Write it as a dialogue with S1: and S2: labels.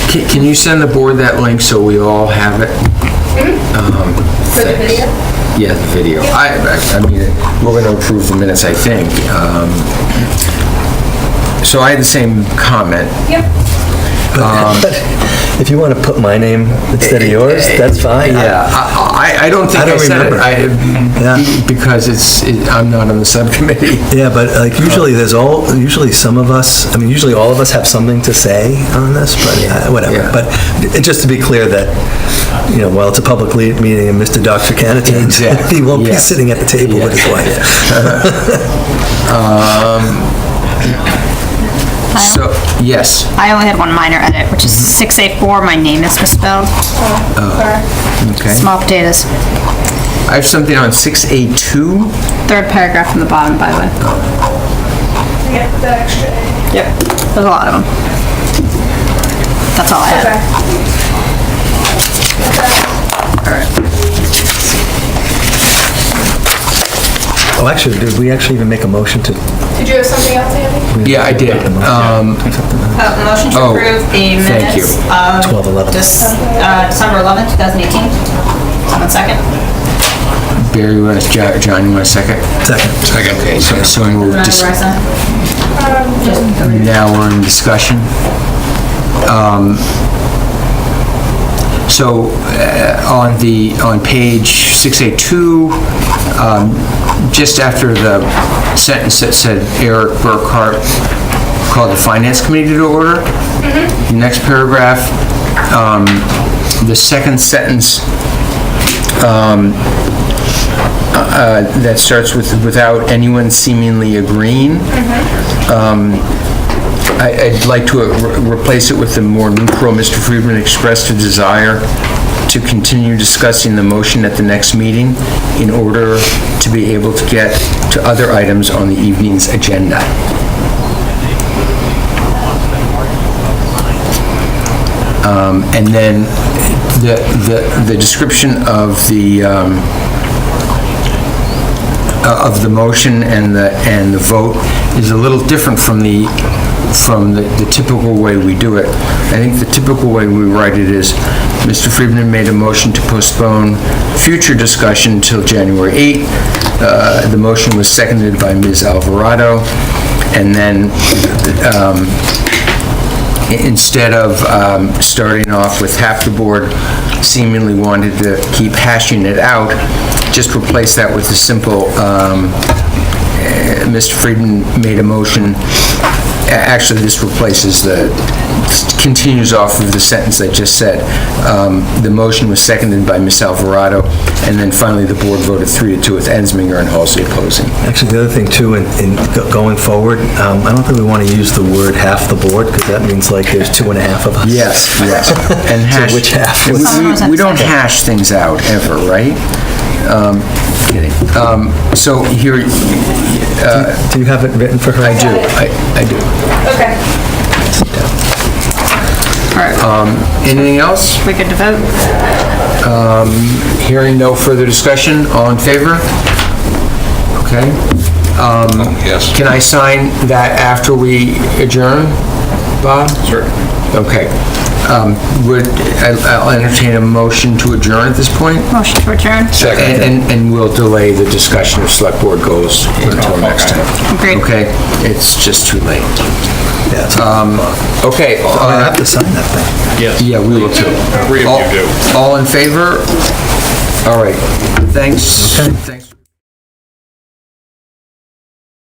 S1: Can can you send the board that link so we all have it? Um,
S2: Hmm? For the
S1: thanks.
S2: video?
S1: Yeah, the video. I, I- I mean, we're gonna approve the minutes, I think. Um, So I had the same comment.
S2: Yep.
S3: But if you want to put my name instead of yours, that's fine.
S1: Eh, Yeah, I, I- I don't think
S3: I
S1: I
S3: don't
S1: said it.
S3: remember. Yeah.
S1: I- Because it's, it- I'm not on the subcommittee.
S3: Yeah, but like usually there's all, usually some of us, I mean, usually all of us have something to say on this, but uh, whatever.
S1: Yeah.
S3: But it- just to be clear that, you know, while it's a public le- meeting and Mr. Dr. Canavan,
S1: Exactly,
S3: he won't be
S1: yes.
S3: sitting at the table with his wife.
S1: So, yes,
S4: I only had one minor edit, which is
S1: Mm-hmm.
S4: 684, my name is misspelled,
S1: okay.
S4: small potatoes.
S1: I have something on 6A2.
S4: Third paragraph from the bottom, by the way.
S2: Yep, the extra A.
S4: Yep. There's a lot of them. That's all I
S2: Okay.
S4: had.
S3: Oh, actually, did we actually even make a motion to?
S2: Did you have something else, Andy?
S1: Yeah, I did. Um,
S4: Uh, Motion to
S1: Oh,
S4: approve the
S1: thank you.
S4: minutes of
S3: 12/11.
S4: Dec- uh, December 11th, 2018. Someone second?
S1: Barry, you want to, Jo- John, you want a second?
S3: Second.
S1: Second. Okay, so, so we'll
S4: Remember
S1: just,
S4: where I signed?
S1: now we're in discussion. Um, So, uh, on the, on page 682, um, just after the sentence that said Eric Burkhart called the Finance Committee to order, the next paragraph, um, the second sentence, um, uh, that starts with, without anyone seemingly agreeing. Um, I- I'd like to re- replace it with the more neutral, Mr. Friedman expressed a desire to continue discussing the motion at the next meeting in order to be able to get to other items on the evening's agenda. Um, And then the, the- the description of the, um, uh, of the motion and the, and the vote is a little different from the, from the the typical way we do it. I think the typical way we write it is, Mr. Friedman made a motion to postpone future discussion until January 8. Uh, The motion was seconded by Ms. Alvarado, and then um, i- instead of um, starting off with half the board seemingly wanted to keep hashing it out, just replace that with a simple, um, eh, Mr. Friedman made a motion, A- actually, this replaces the, continues off of the sentence I just said. Um, The motion was seconded by Ms. Alvarado, and then finally, the board voted three to two with Ensminger and Halsey opposing.
S3: Actually, the other thing too, in, in go- going forward, um, I don't think we want to use the word half the board because that means like there's two and a half of us.
S1: Yes, yes. And
S3: So
S1: hash.
S3: which half
S1: We-
S3: was-
S1: we- We don't hash things out ever, right? Um, Kidding. Um, So here,
S3: Do you have it written for her?
S1: I do, I I do.
S2: Okay.
S4: All
S1: Uh,
S4: right,
S1: Anything else?
S4: we good to vote?
S1: Hearing no further discussion, all in favor? Okay. Oh, Yes. Can I sign that after we adjourn, Bob? Sure. Okay. Um, Would, I- I'll entertain a motion to adjourn at this point?
S4: Motion to adjourn?
S1: And- And, and we'll delay the discussion of select board goals until next time.
S4: Agreed.
S1: Okay, it's just too late.
S3: Yeah, it's-
S1: Uh, Okay,
S3: I have
S1: uh,
S3: to sign that thing.
S1: yeah, we will too.
S5: Three of you
S1: All- All in favor? All right, thanks. Thank-